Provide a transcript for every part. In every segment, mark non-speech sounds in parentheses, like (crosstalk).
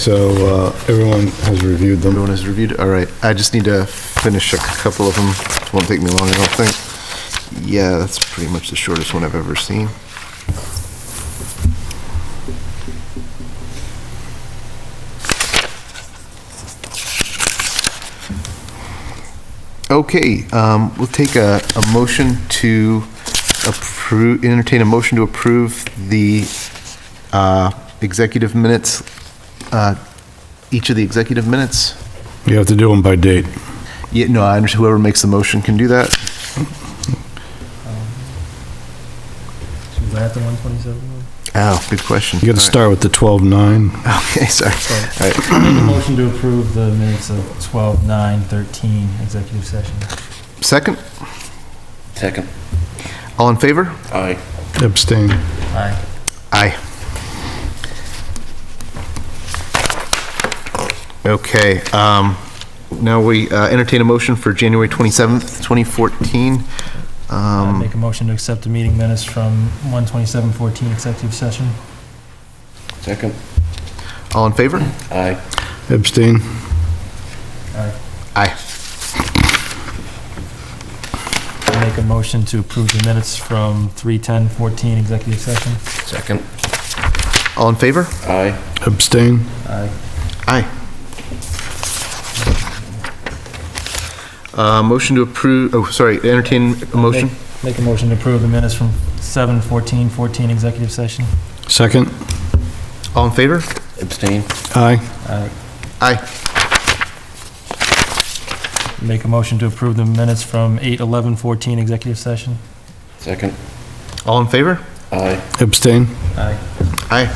So uh, everyone has reviewed them. Everyone has reviewed, all right. I just need to finish a couple of them. Won't take me long, I don't think. Yeah, that's pretty much the shortest one I've ever seen. Okay, um, we'll take a, a motion to approve, entertain a motion to approve the, uh, executive minutes, uh, each of the executive minutes. You have to do them by date. Yeah, no, I understand. Whoever makes the motion can do that. Should we go at the 127 one? Oh, good question. You got to start with the 12-9. (laughs) Okay, sorry. All right. Make a motion to approve the minutes of 12, 9, 13, executive session. Second, Second. all in favor? Aye. Abstain. Aye. Aye. Okay, um, now we uh, entertain a motion for January 27th, 2014. I'd Um, Make a motion to accept the meeting minutes from 127, 14, executive session. Second. all in favor? Aye. Abstain. Aye. Aye. I'd Make a motion to approve the minutes from 310, 14, executive session. Second. All in favor? Aye. Abstain. Aye. Aye. Uh, motion to approve, oh, sorry, entertain a motion? Make- Make a motion to approve the minutes from 7, 14, 14, executive session. Second. All in favor? Abstain. Aye. Aye. Aye. Make a motion to approve the minutes from 8, 11, 14, executive session. Second. All in favor? Aye. Abstain. Aye. Aye.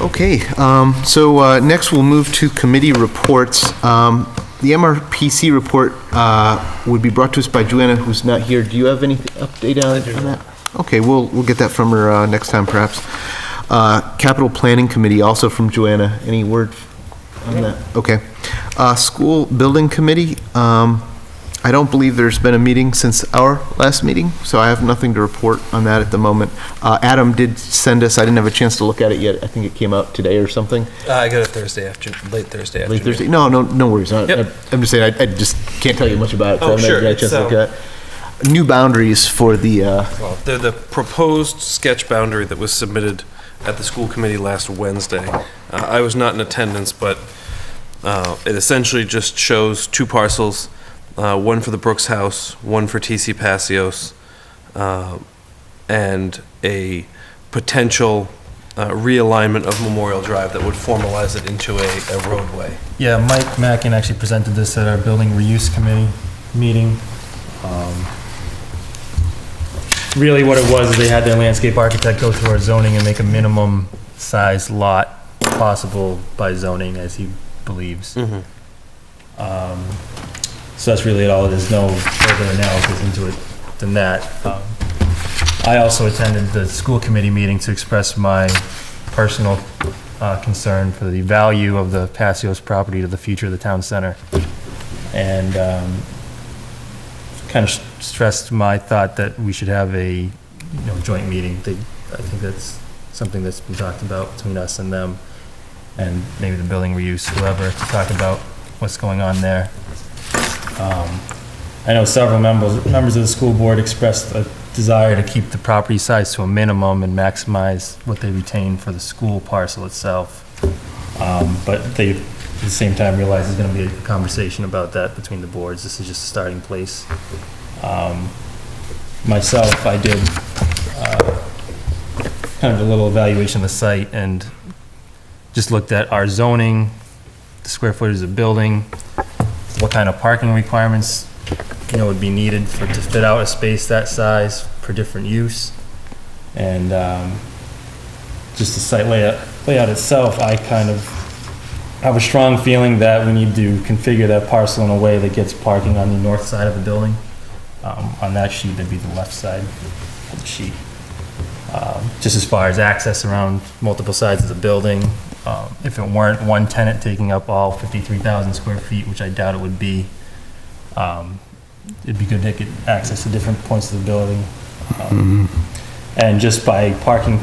Okay, um, so uh, next we'll move to committee reports. Um, The MRPC report uh, would be brought to us by Joanna, who's not here. Do you have any update on on that? Okay, we'll, we'll get that from her uh, next time perhaps. Uh, Capital Planning Committee, also from Joanna. Any word on that? Okay. Uh, School Building Committee, um, I don't believe there's been a meeting since our last meeting, so I have nothing to report on that at the moment. Uh, Adam did send us, I didn't have a chance to look at it yet, I think it came out today or something. Uh, I got it Thursday after, late Thursday afternoon. Late Thursday, no, no, no worries, I- Yep. I'm just saying, I I just can't tell you much about it. 'cause I Oh, haven't had sure, a chance to so- look at it. New boundaries for the, uh, Well, The, the proposed sketch boundary that was submitted at the school committee last Wednesday. Uh, I was not in attendance, but uh, it essentially just shows two parcels, uh, one for the Brooks House, one for TC Passios, uh, and a potential uh, realignment of Memorial Drive that would formalize it into a a roadway. Yeah, Mike Mackin actually presented this at our building reuse committee meeting. Um, Really what it was, is they had their landscape architect go through our zoning and make a minimum size lot possible by zoning, as he believes. Mhm. Um, So that's really all, there's no further analysis into it than that. Um, I also attended the school committee meeting to express my personal uh, concern for the value of the Passios property to the future of the town center. And um, kind of stressed my thought that we should have a, you know, joint meeting. They- I think that's something that's been talked about between us and them, and maybe the building reuse, whoever, to talk about what's going on there. Um, I know several members, members of the school board expressed a desire to keep the property size to a minimum and maximize what they retain for the school parcel itself. Um, But they, at the same time, realize there's going to be a conversation about that between the boards. This is just a starting place. Um, Myself, I did uh, kind of a little evaluation of the site and just looked at our zoning, the square footage of the building, what kind of parking requirements, you know, would be needed for, to fit out a space that size for different use. And, um, just the site layout, layout itself, I kind of have a strong feeling that we need to configure that parcel in a way that gets parking on the north side of the building. Um, on that sheet, that'd be the left side of the sheet. Um, just as far as access around multiple sides of the building, um, if it weren't one tenant taking up all 53,000 square feet, which I doubt it would be, um, it'd be good to get access to different points of the building. Um, And just by parking